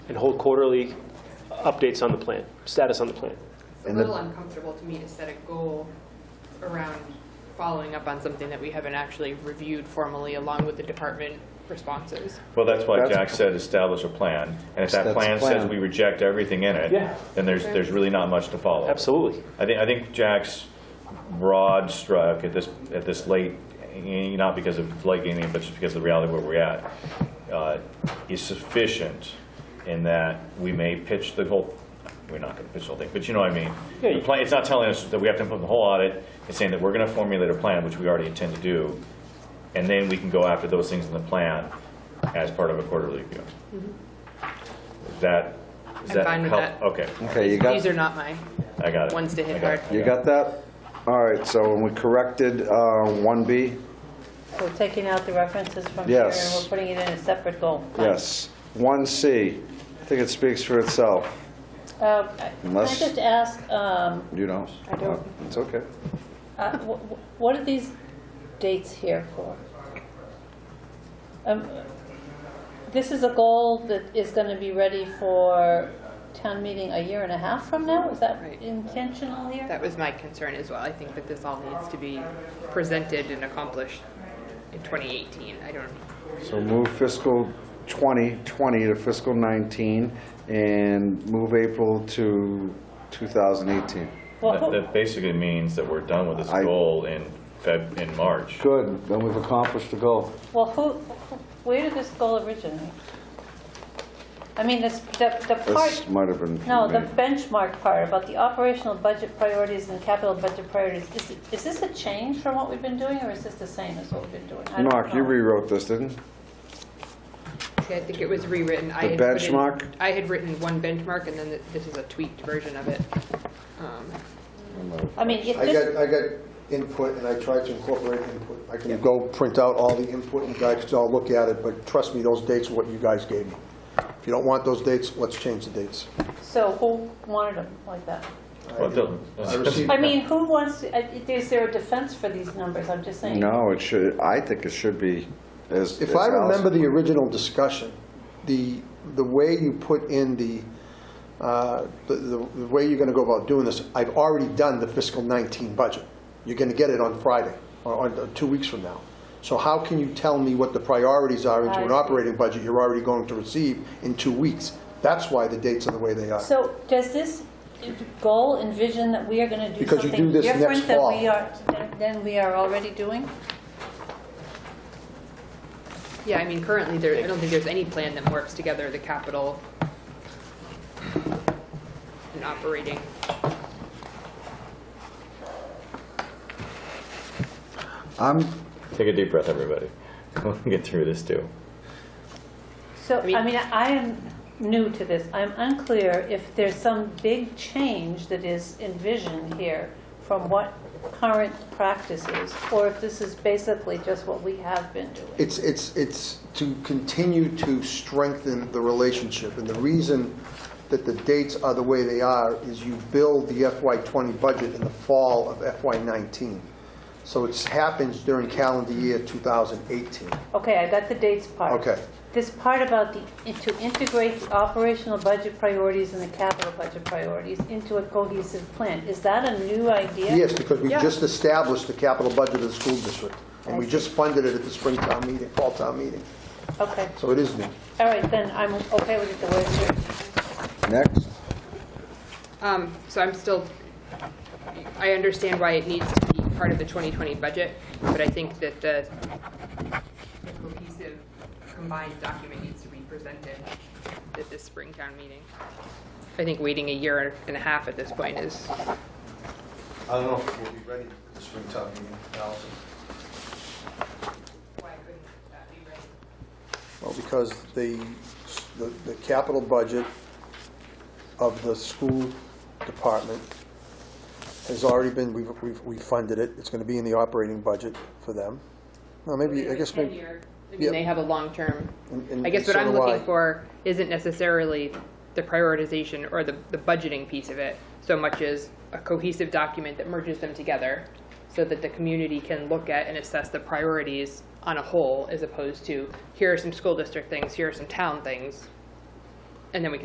and hold quarterly updates on the plan, status on the plan. It's a And the- little uncomfortable to me to set a goal around following up on something that we haven't actually reviewed formally along with the department responses. Well, that's why That's- Jack said establish a plan, and if that That's plan says plan. we reject everything in it, Yeah. then there's, there's really not much to follow. Absolutely. I think, I think Jack's broad stroke at this, at this late, eh, not because of late gaming, but just because of the reality where we're at, uh, is sufficient in that we may pitch the whole, we're not going to pitch the whole thing, but you know what I mean. Yeah, The you- plan, it's not telling us that we have to implement the whole audit, it's saying that we're going to formulate a plan, which we already intend to do, and then we can go after those things in the plan as part of a quarterly review. Mm-hmm. Is that, is I'm that fine with help- that. Okay, Okay, you These got, are not mine. I got it. Ones to hit I got it, hard. I you got that? All right, so when we corrected uh, 1B, We're taking out the references from here, and Yes. we're putting it in a separate goal. yes. 1C, I think it speaks for itself, Uh, I- Can I Unless- just ask, um, you don't? I don't. It's okay. uh, wh- wh- what are these dates here for? Um, This is a goal that is going to be ready for town meeting a year and a half from now? Is that Right. intentional here? That was my concern as well. I think that this all needs to be presented and accomplished in 2018. I don't, So move fiscal 2020 to fiscal 19 and move April to 2018. Well, That, that basically means that we're done with this I- goal in Feb, in March. Good, then we've accomplished the goal. Well, who, who- where did this goal originate? I mean, this, the, the This part, might have been no, from the me. benchmark part about the operational budget priorities and capital budget priorities, is, is this a change from what we've been doing, or is this the same as what we've been doing? I don't Mark, you know. rewrote this, didn't you? I think it was rewritten. I The had put in- benchmark? I had written one benchmark and then th- this is a tweaked version of it. Um, I mean, if I got, this, I got input, and I tried to incorporate input. I can go print out all the input, and you guys can all look at it, but trust me, those dates are what you guys gave me. If you don't want those dates, let's change the dates. so who wanted them like that? Well, it doesn't- I received- I mean, who wants, to- I- is there a defense for these numbers, I'm just saying? No, it should, I think it should be as. If as I Allison- remember the original discussion, the, the way you put in the, uh, the the the way you're going to go about doing this, I've already done the fiscal 19 budget. You're going to get it on Friday, or on, two weeks from now. So how can you tell me what the priorities are into I an see. operating budget you're already going to receive in two weeks? That's why the dates are the way they are. So does this goal envision that we are going to do Because you something do this different next than fall. we are, than- than we are already doing? Yeah, I mean, currently there, I don't think there's any plan that works together, the capital and operating. I'm, Take a deep breath, everybody. We'll get through this too. So, I mean- I mean, I am new to this. I'm unclear if there's some big change that is envisioned here from what current practice is, or if this is basically just what we have been doing. It's, it's, it's to continue to strengthen the relationship. And the reason that the dates are the way they are is you build the FY '20 budget in the fall of FY '19. So it happens during calendar year 2018. Okay, I got the dates part. Okay. This part about the, to integrate the operational budget priorities and the capital budget priorities into a cohesive plan, is that a new idea? Yes, because we Yeah. just established the capital budget of the school district. And we I see. just funded it at the spring town meeting, fall town meeting. Okay, So it is new. all right, then I'm okay with it the way it's written. next. Um, so I'm still, I understand why it needs to be part of the 2020 budget, but I think that the the cohesive combined document needs to be presented at this spring town meeting. I think waiting a year and a half at this point is, I don't know if we'll be ready for the spring town meeting, Allison. why couldn't that be ready? Well, because the, the the capital budget of the school department has already been, we've, we've we've funded it, it's gonna be in the operating budget for them. Well, maybe, I guess, maybe, I mean, Yep. they have a long-term, And- and I guess what so I'm do I. looking for isn't necessarily the prioritization or the, the budgeting piece of it, so much as a cohesive document that merges them together, so that the community can look at and assess the priorities on a whole, as opposed to, here are some school district things, here are some town things, and then we can